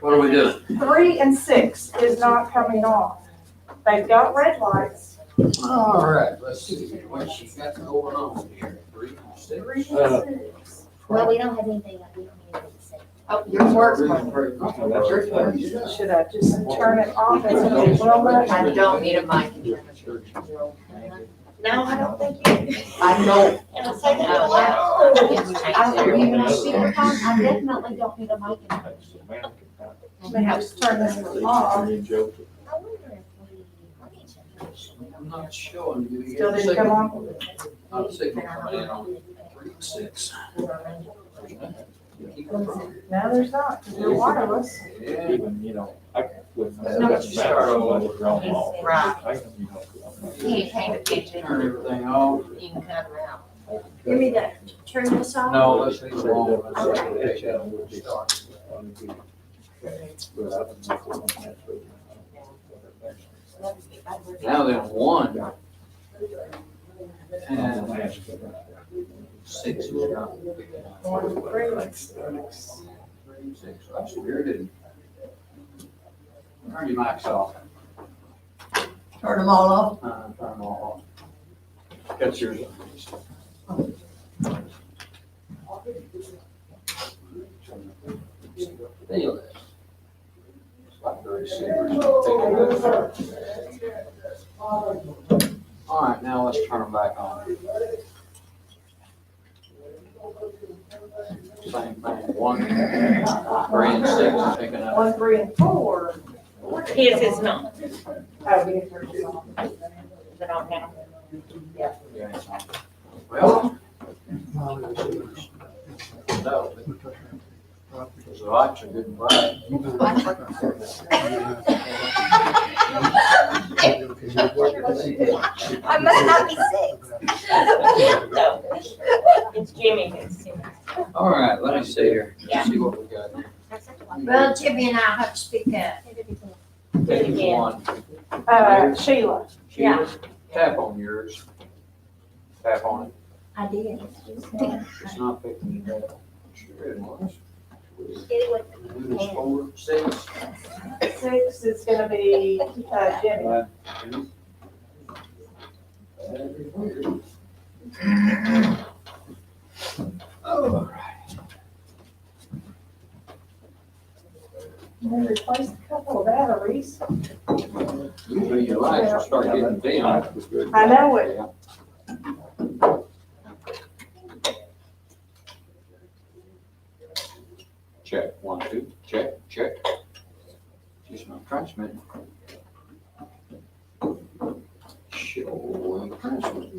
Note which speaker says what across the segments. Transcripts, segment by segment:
Speaker 1: What do we do?
Speaker 2: Three and six is not coming off. They've got red lights.
Speaker 1: All right, let's see what she's got going on here. Three and six.
Speaker 3: Uh,
Speaker 4: Well, we don't have anything, like, we don't need anything to say.
Speaker 2: Oh, yours works,
Speaker 1: Three
Speaker 2: mine.
Speaker 1: and three.
Speaker 3: Oh, that's your turn.
Speaker 1: Yeah.
Speaker 2: Should I just turn it off and say, well,
Speaker 5: I don't need a mic.
Speaker 4: No, I don't think you.
Speaker 5: I don't.
Speaker 4: And I say that
Speaker 5: out
Speaker 3: uh,
Speaker 5: loud. I don't even have speakerphone. I definitely don't need a mic.
Speaker 2: may I just turn this one off?
Speaker 4: I wonder if we, let me check.
Speaker 1: I'm not showing you.
Speaker 2: Still didn't come on?
Speaker 1: I'm sick of playing on three and six. Keep it from-
Speaker 2: No, there's not. 'cause You're wireless.
Speaker 1: Yeah.
Speaker 3: Even, you know, I can, with.
Speaker 1: No, but you start all over.
Speaker 5: Right.
Speaker 3: I can, you know,
Speaker 5: You can't attention
Speaker 1: Turn
Speaker 5: or
Speaker 1: everything off.
Speaker 5: you can cut it out.
Speaker 6: You mean that, turn this off?
Speaker 1: No, let's leave it alone. Let's take that and we'll start. Now then, one and six. is not- Three, six. That's weird, isn't it? Turn your mics off.
Speaker 5: Turn them all off.
Speaker 1: Uh, turn them all off. That's yours. Anyway. Blackberry Savers. All right, now let's turn them back on. Same thing, one, three and six is picking up.
Speaker 2: One, three, and four.
Speaker 6: His is not.
Speaker 2: Oh, we can turn this off.
Speaker 6: But on now.
Speaker 1: Well. No. There's a lot you didn't buy.
Speaker 6: I must not be six. No. It's Jimmy who's six.
Speaker 1: All right, let me see here.
Speaker 6: Yeah.
Speaker 1: See what we got. here.
Speaker 5: Well, Jimmy and I have to speak up.
Speaker 6: Do it again.
Speaker 1: One.
Speaker 2: Uh, Sheila,
Speaker 1: Sheila, Tap on yours. Tap on it.
Speaker 4: I did.
Speaker 1: It's not picking it up. Sure it was.
Speaker 4: Get it with
Speaker 1: It was four, six.
Speaker 2: six is gonna be, uh, Jimmy.
Speaker 1: five, two. That'd be weird. All right.
Speaker 2: Can we replace a couple of batteries?
Speaker 1: Usually your lights will start getting dim.
Speaker 2: I know it.
Speaker 1: Check, one, two, check, check. Just my transmit. Show and transmit.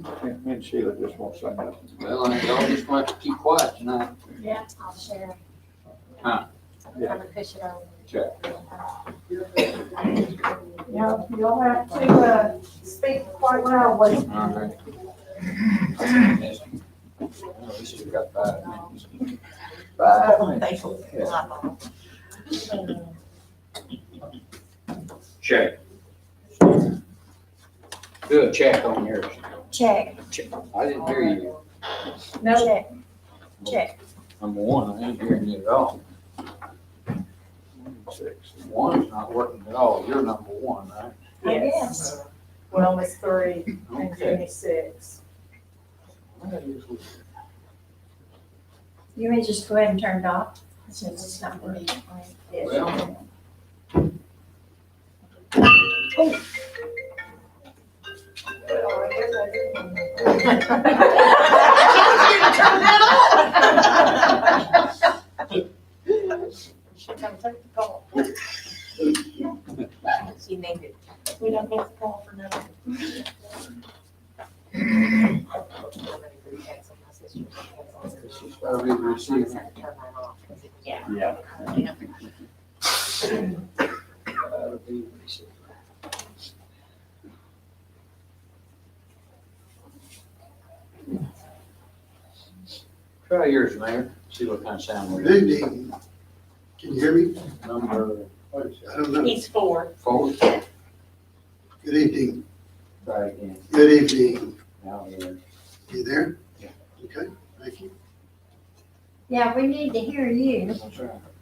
Speaker 3: Me and Sheila just won't say nothing.
Speaker 1: Well, I y'all just want to keep quiet tonight.
Speaker 4: Yeah, I'll share.
Speaker 1: Huh.
Speaker 4: I'm gonna push it over.
Speaker 1: Check.
Speaker 2: You'll, you'll have to, uh, speak quite loudly.
Speaker 1: All right. Well, At least we got five minutes. Five minutes. Yeah. Check. Do a check on yours.
Speaker 4: Check,
Speaker 1: I didn't hear you.
Speaker 2: No,
Speaker 4: check, check.
Speaker 1: Number one, I ain't hearing you at all.
Speaker 3: Six.
Speaker 1: One's not working at all. You're number one, right?
Speaker 2: yes. Well, it's three and
Speaker 1: Okay.
Speaker 2: Jimmy six.
Speaker 4: You may just go ahead and turn it off, since it's not working.
Speaker 1: Well.
Speaker 2: Oh,
Speaker 4: Should come take the call.
Speaker 5: She named it.
Speaker 4: We don't have to call for nothing.
Speaker 1: She's probably receiving.
Speaker 5: Yeah.
Speaker 3: Yeah.
Speaker 1: That'll be receiving. Try yours, Mayor. See what kind of sound we
Speaker 7: Good
Speaker 1: get.
Speaker 7: evening. Can you hear me?
Speaker 1: Number
Speaker 7: I don't know.
Speaker 6: He's four.
Speaker 1: four.
Speaker 7: Good evening.
Speaker 1: Try again.
Speaker 7: Good evening.
Speaker 1: Now here.
Speaker 7: You there?
Speaker 1: Yeah.
Speaker 7: Okay, thank you.
Speaker 4: Yeah, we need to hear you.
Speaker 1: That's right.